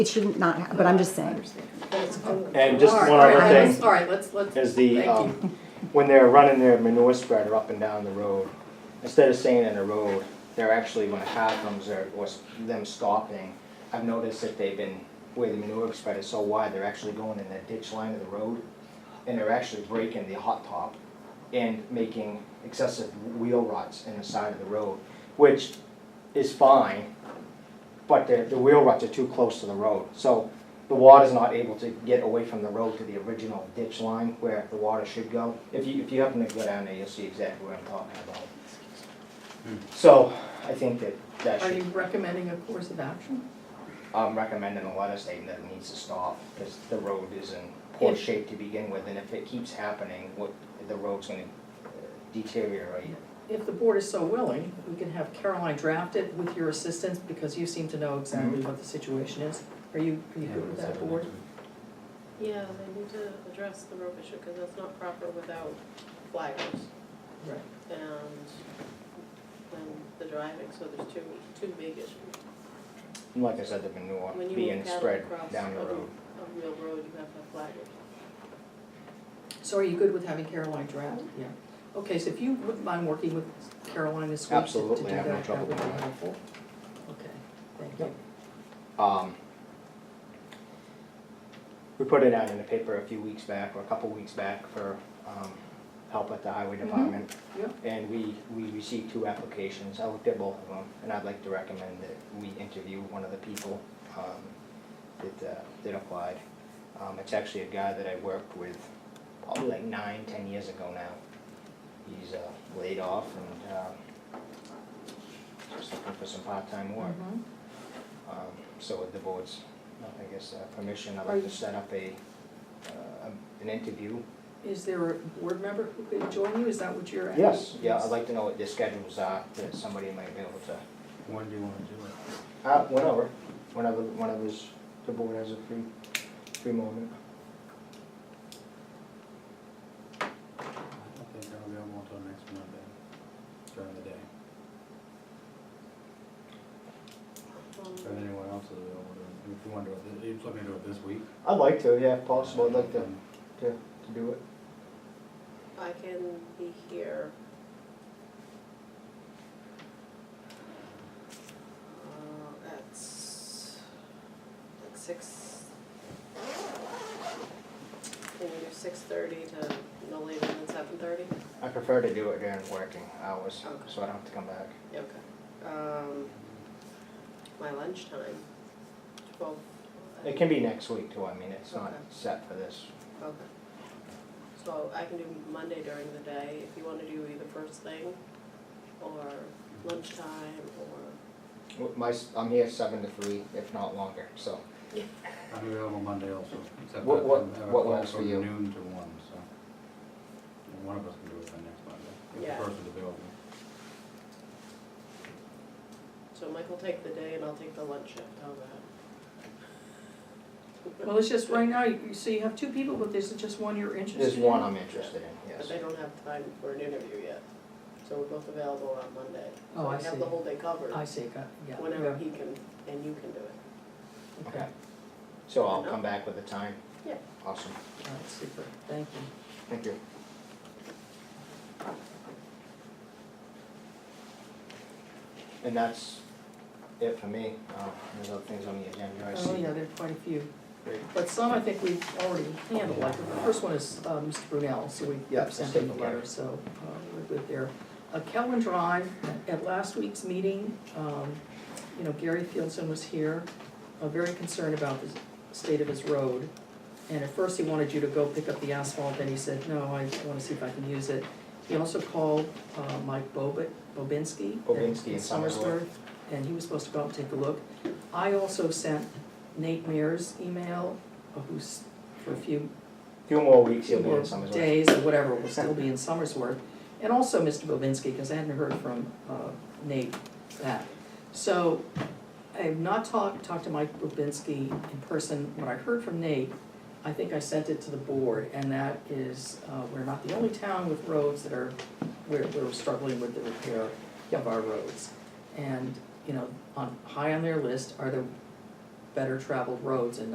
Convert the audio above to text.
It shouldn't not, ha- but I'm just saying. And just All right, one all right, other thing. let's- All right, let's, let's. is the, thank um, you. when they're running their manure spreader up and down the road, instead of saying in the road, they're actually, when a car comes or, or s- them stopping, I've noticed that they've been, where the manure spreader's so wide, they're actually going in the ditch line of the road, and they're actually breaking the hot top and making excessive wheel ruts in the side of the road, which is fine, but the, the wheel ruts are too close to the road. So the water's not able to get away from the road to the original ditch line where the water should go. If you, if you happen to go down there, you'll see exactly what I'm talking about. So I think that that Are you should, recommending a course of action? I'm recommending a letter stating that it needs to stop because the road is in poor If- shape to begin with. And if it keeps happening, what, the road's gonna uh, deteriorate. If the board is so willing, we can have Caroline draft it with your assistance, because you seem to know exactly Mm-hmm. what the situation is. Are you, are you good with that, board? Yeah, they need to address the rope issue, because that's not proper without flaggers Right. and, and the driving, so there's two, two big issues. And Like I said, the manure When you being move cattle spread across down the a- road. A real road, you have to have flaggers. So are you good with having Caroline draft? Yeah. Okay, so if you wouldn't mind working with Caroline this week to- to do that, Absolutely, I have no that trouble would be with that. helpful. Okay, thank you. Um, we put it out in the paper a few weeks back, or a couple weeks back, for, um, help at the highway department. Yep. And we, we received two applications, I looked at both of them, and I'd like to recommend that we interview one of the people, um, that, uh, that applied. Um, it's actually a guy that I worked with probably like nine, ten years ago now. He's, uh, laid off and, um, just looking for some part-time work. Mhm. Um, So with the board's, I guess, uh, permission, I'd Are like you- to set up a, uh, an interview. Is there a board member who could join you? Is that what you're asking? Yes, yeah, I'd like to know what their schedules are, that somebody might be able to, When do you wanna do it? uh, whenever, whenever, whenever this- the board has a free, free moment. I don't think I'm available until next Monday, during the day, if Um, anyone else is available, during- if you wanna do it, if you want to do it this week. Um, I'd like to, yeah, if possible, I'd like to, to, to do it. I can be here. Uh, at s- like six. Can we do six thirty to no later than seven thirty? I prefer to do it during working hours, Okay. so I don't have to come back. Okay. Um, my lunchtime, twelve. It can be next week too, I mean, it's not Okay. set for this. Okay. So I can do Monday during the day, if you wanna do either first thing, or lunchtime, or, W- My, s- I'm here seven to three, if not longer, so. I'm available Monday also, except What- that what- I'm- I have a what call works for from you? noon to one, so. And One of us can do it by next Monday, if Yeah. the person's available. so Mike will take the day and I'll take the lunch shift, how's that? Well, it's just right now, you, so you have two people, but there's just one you're interested in? There's one I'm interested in, yes. But they don't have time for an interview yet, so we're both available on Monday. Oh, I So we have see. the whole day covered, I see, got, yeah. whenever he can, and you can do it. yeah, Okay, Okay, so I'll come back with the time? Yeah. Awesome, all right, super, thank you. thank you. And that's it for me, uh, there's other things on the agenda, I see. Oh, yeah, there are quite a few, Great. but some I think we've already handled, like the first one is, uh, Mr. Brunel, so we Yeah, have sent let's him the take a look. letter, so, uh, we're good there. Uh, Kelvin Drive, at last week's meeting, um, you know, Gary Fieldson was here, uh, very concerned about the state of his road. And at first he wanted you to go pick up the asphalt, then he said, no, I wanna see if I can use it. He also called, uh, Mike Bobit, Bobinski. at- Bobinski in in Somersworth. Somersworth, and he was supposed to go out and take a look. I also sent Nate Mears email, uh, who's for a few Few more weeks, few you'll be more in summer's. work. days or whatever, will still be in Somersworth. And also Mr. Bobinski, because I hadn't heard from uh, Nate that. So I have not talked, talked to Mike Bobinski in person. When I heard from Nate, I think I sent it to the board, and that is, uh, we're not the only town with roads that are, we're, we're struggling with the repair of our roads. And, you know, on, high on their list are the better traveled roads and